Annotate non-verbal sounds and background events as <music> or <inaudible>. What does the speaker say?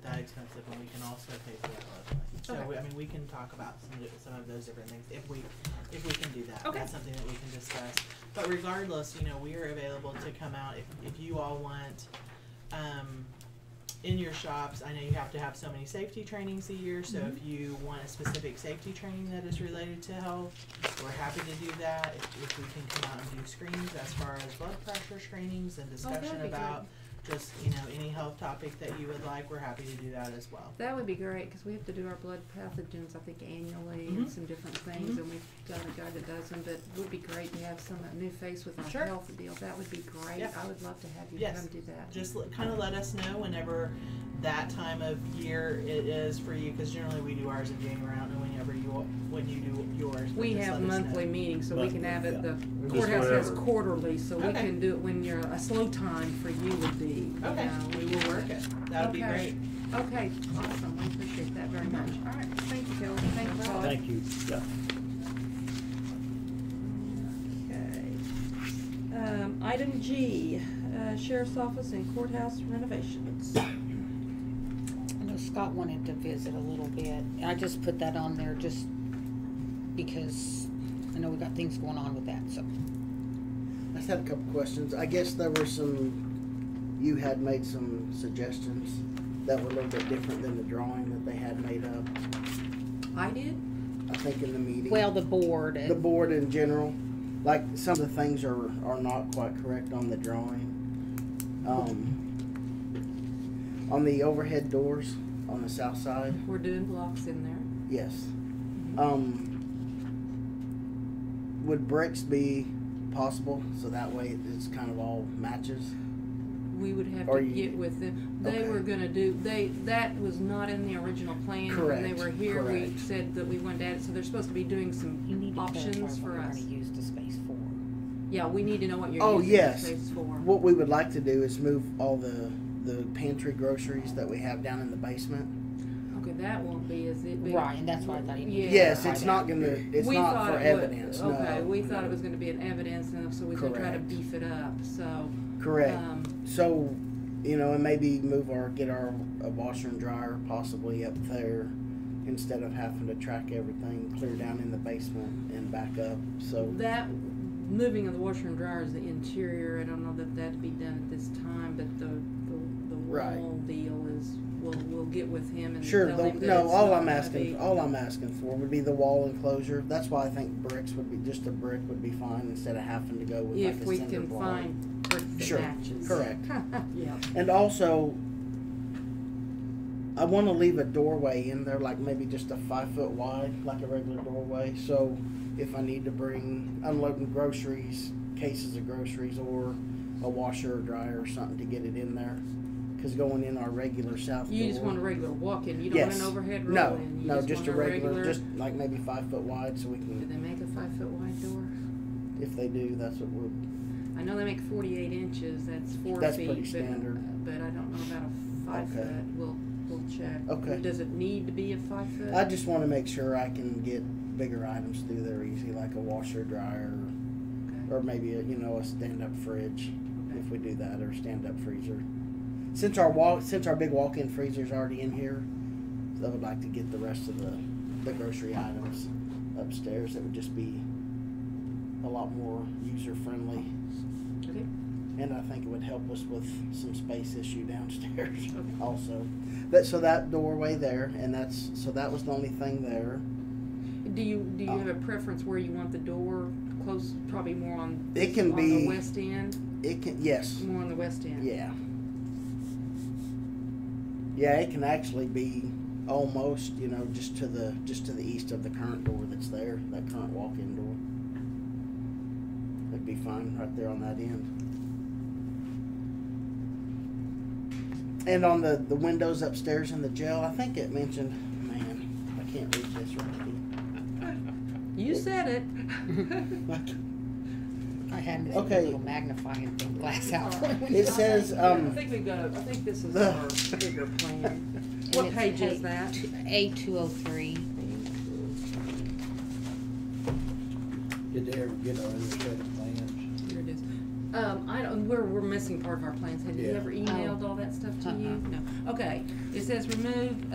expensive, and we can also pay for that road fund. So, Okay. we- I mean, we can talk about some, of- some of those different things, if we, if we can do that. Okay. That's something that we can discuss. But regardless, you know, we are available to come out if, if you all want, um, in your shops, I know you have to have so many safety trainings a year, so Mm-hmm. if you want a specific safety training that is related to health, we're happy to do that. If, if we can come out and do screenings as far as blood pressure screenings and Oh, that'd discussion be good. about just, you know, any health topic that you would like, we're happy to do that as well. That would be great, because we have to do our blood pathogens, I think annually, Mhm. and some different things, Mhm. and we've got a guy that does them, but it would be great to have some, a new face with Sure. our health deal, that would be great, Yeah. I would love to have you Yes. come do that. Just l- kind of let us know whenever that time of year it is for you, because generally we do ours in January, I don't know whenever you, when you do yours. but We just have let us know. monthly meetings, so we can Monthly, have it, yeah. the Just courthouse has whenever. quarterly, so we Okay. can do it when you're, a slow time for you would be, you Okay, know, we will work it. That would be Okay. great. Okay, awesome, I appreciate that very much, all right, thank you, Kelly, thank you, Paul. Thank you, yeah. Okay. Um, item G, uh, sheriff's office and courthouse renovations. I know Scott wanted to visit a little bit. I just put that on there just because I know we got things going on with that, so. I just had a couple questions. I guess there were some, you had made some suggestions that were a little bit different than the drawing that they had made up, I did? I think in the meeting. Well, the board, The and board in general, like some of the things are, are not quite correct on the drawing. Um, on the overhead doors on the south side, We're doing blocks in there. yes. Um, would bricks be possible, so that way it's kind of all matches? We would have Are to you- get with them. They Okay. were gonna do, they, that was not in the original plan. When they Correct, were here, we correct. said that we wanted to add it, so they're supposed to be doing some, you need to Options clarify what for we're gonna us. use the space for. yeah, we need to know what Oh, you're using the yes. space for. What we would like to do is move all the the pantry groceries that we have down in the basement. Okay, that won't be, is it? be- Right, and that's why I thought you needed Yeah. to Yes, clarify it's that. not gonna. It's We not thought for it would- evidence. Okay, no. we thought it was gonna be an evidence, and so we could try to Correct. beef it up, so, Correct. um, so, you know, and maybe move our get our a washer and dryer possibly up there instead of having to track everything clear down in the basement and back up. So That moving of the washer and dryer is the interior. I don't know that that'd be done at this time, but the the, the Right. wall deal is we'll we'll get with him and sure. tell The, him that no, it's all not I'm gonna asking, be- all I'm asking for would be the wall enclosure. That's why I think bricks would be just a brick would be fine instead of having to go with if like a we cinder can block. find brick that Sure, matches. correct. <laughs> yeah. And also, I want to leave a doorway in there, like maybe just a five foot wide, like a regular doorway. So if I need to bring unloading groceries, cases of groceries, or a washer or dryer or something to get it in there, because going in our regular south You just door. want a regular walk in. You don't Yes. want an overhead roll no, in. You no, just want a regular, just like maybe five foot wide, so we do can. they make a five foot wide door? If they do, that's what we'll. I know they make forty eight inches. That's four That's feet. pretty but- standard. But, I don't know about a five Okay. foot. We'll we'll check. Okay. Does it need to be a five foot? I just want to make sure I can get bigger items through there easy, like a washer, dryer, Okay. or maybe a, you know a stand-up fridge if we do that or stand-up freezer since our walk since our big walk-in freezer is already in here i would like to get the rest of the, the grocery items upstairs it would just be a lot more user friendly Okay. and i think it would help us with some space issue <laughs> downstairs Okay. also that so that doorway there and that's so that was the only thing there Do you do you Uh, have a preference where you want the door close? Probably more on It can on be- the west end, it can yes more on the west end. Yeah. Yeah, it can actually be almost, you know, just to the just to the east of the current door that's there, that current walk-in door. That'd be fine right there on that end. And on the the windows upstairs in the jail, I think it mentioned. Man, I can't read this right. You said it. here. I had this Okay. little magnifying thing glass out. <laughs> It says I um. think we've got. A, I think this is the- our bigger plan. <laughs> <laughs> And What it's page is A- that? A two oh three. Did they ever get our other set of plans? Here it is. Um, I don't, we're, we're missing part of our plans. Have you Yeah. ever emailed all that stuff to Uh-uh. you? No. Okay, it says remove